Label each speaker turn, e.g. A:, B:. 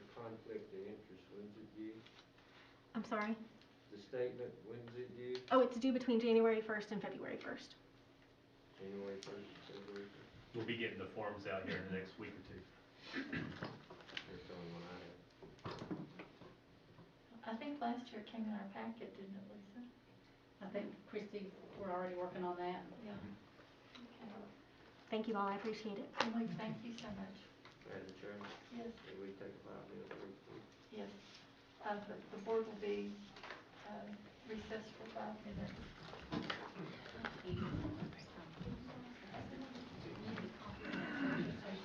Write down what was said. A: conflict of interest, when's it due?
B: I'm sorry.
A: The statement, when's it due?
B: Oh, it's due between January 1st and February 1st.
A: January first, February first?
C: We'll be getting the forms out here in the next week or two.
A: That's the only one I have.
D: I think last year it came in our packet, didn't it, Lisa?
E: I think Christie, we're already working on that.
D: Yeah.
B: Thank you all. I appreciate it.
D: Okay, Well, thank you so much.
A: Madam Chairman,
D: Yes,
A: can we take five minutes break, please?
D: yes. Uh, the, the board will um, be, uh, recessed for five minutes. Thank you.